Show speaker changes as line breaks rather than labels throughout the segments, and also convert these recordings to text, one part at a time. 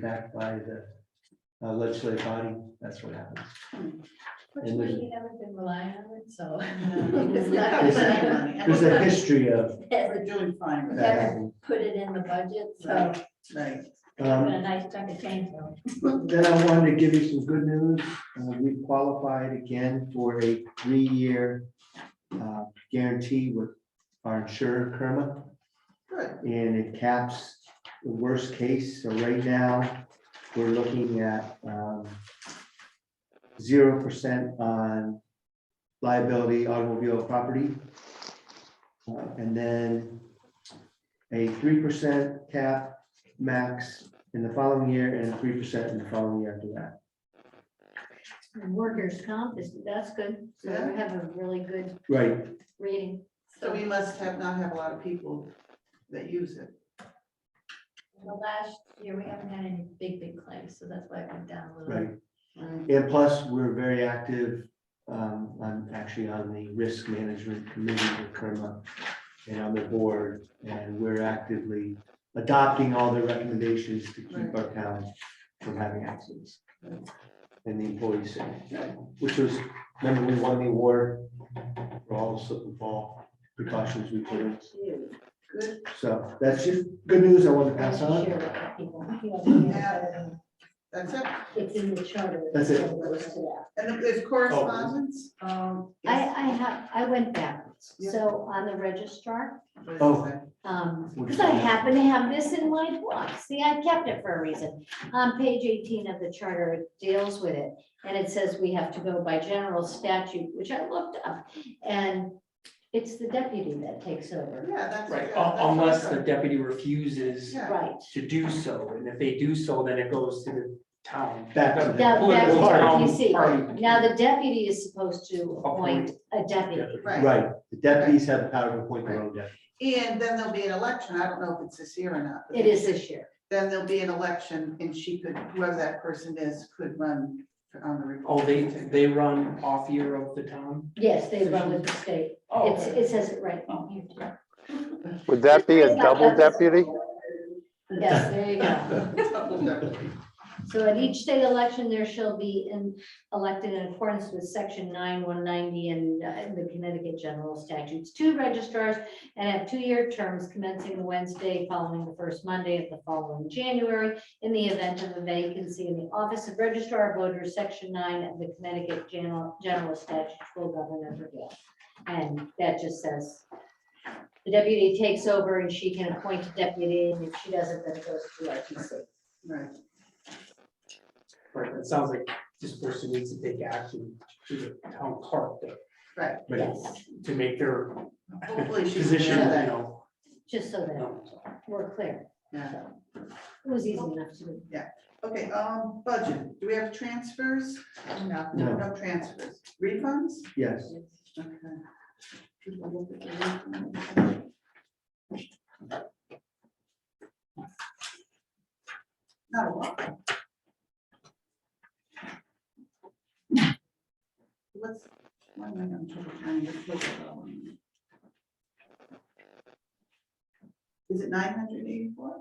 back by the uh, legislative body, that's what happens. And there's-
Fortunately, you haven't been relying on it, so. it's not-
There's
we
a- there's a history of
haven't
We're doing fine with
that
that,
happening.
Put it in the budget, so it's
right?
been
Um,
a nice chunk of change. though.
Then I wanted to give you some good news. Uh, We qualified again for a three-year uh, guarantee with our insurer, Kerma.
Good.
And it caps the worst case. So right now, we're looking at um, zero percent on liability automobile property. Uh, And then a three percent cap max in the following year and three percent in the following year after that.
Workers' comp is, that's good, so
Yeah.
we have a really good
Right,
rating.
So we must have, not have a lot of people that use it.
The last year, we haven't had any big, big claims, so that's why it went down a little.
right.
Mm,
And plus, we're very active, um, I'm actually on the risk management committee with Kerma and on the board, and we're actively adopting all the recommendations to keep our town from having accidents. And the employees safe, which was, remember, we won the award for all the slip and fall precautions we put in.
Good.
So that's just good news I want to pass on.
Share with the people.
Yeah. That's it.
It's in the charter.
That's it.
It goes to that.
And there's correspondence?
Um,
Oh. I, I have, I went backwards,
Yeah.
so on the registrar,
What is
Oh.
that?
um, because I happen to have this in my book, see, I kept it for a reason. On page eighteen of the charter, it deals with it, and it says we have to go by general statute, which I looked up. And it's the deputy that takes over,
Yeah, that's.
Right,
yeah,
un-
that's
unless the
awesome.
deputy refuses
Yeah.
right?
to do so, and if they do so, then it goes to the town.
Back to the-
Now, back to
Political town
PC.
party.
Now, the deputy is supposed to appoint a deputy.
Right,
Right, the deputies have the power to appoint their own deputy.
and then there'll be an election, I don't know if it's this year or not. but
It is this year.
Then there'll be an election and she could, whoever that person is, could run on the.
Oh, they,
Republican ticket.
they run off year of the town?
Yes, they run with the state.
Oh,
It's,
okay.
it says it right.
Would that be a double deputy?
Yes, there you go.
Double, double.
So at each state election, there shall be in, elected in accordance with section nine, one ninety and uh, and the Connecticut general statutes, two registrars and have two-year terms commencing the Wednesday following the first Monday of the following January in the event of a vacancy in the Office of Registrar of Voters, section nine of the Connecticut general, general statutes will govern and prevail. And that just says the deputy takes over and she can appoint a deputy, and if she doesn't, then it goes to RTC.
Right,
Right, it sounds like this person needs to take action to the town clerk to-
right.
Yes,
to make their
Hopefully she's.
position, you
that.
know.
just so that we're clear.
Yeah.
It was easy enough to do.
Okay, um, budget, do we have transfers? No,
No.
no transfers, refunds?
Yes,
Okay. Not a lot. What's? one minute, I'm trying to find this book. Is it nine hundred eighty-four?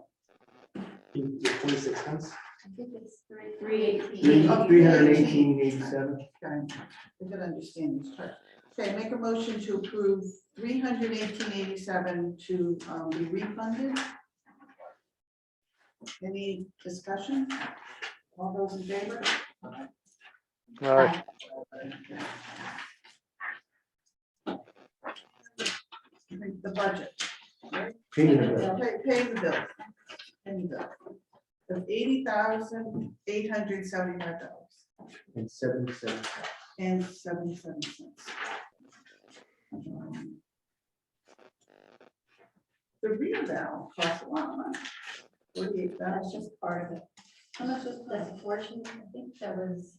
Twenty-six cents?
I think it's three.
Three
three
eighteen.
Oh,
hundred eighteen eighty-seven.
Okay, I could understand this chart. Okay, make a motion to approve three hundred eighteen eighty-seven to um, be refunded. Any discussion? All those in favor?
Aye.
The budget,
Payment of-
pay, pay the bill. Pay the bill. Of eighty thousand, eight hundred seventy-five dollars
and seven cents.
and seventy-seven cents. Um, The rebound costs a lot of money. Forty-eight
That's
thousand.
just part of it. How much was that portion? I think that was.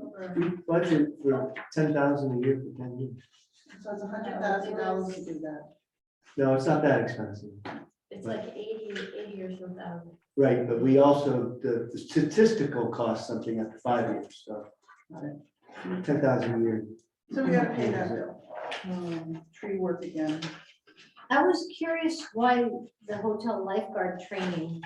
over-
We budget for ten thousand a year for ten years.
So it's a hundred thousand dollars to do that.
No, it's not that expensive.
It's like eighty, eighty or so thousand.
Right, but we also, the the statistical costs something after five years, so. Ten thousand a year.
So we gotta pay that bill. Um, Tree work again.
I was curious why the hotel lifeguard training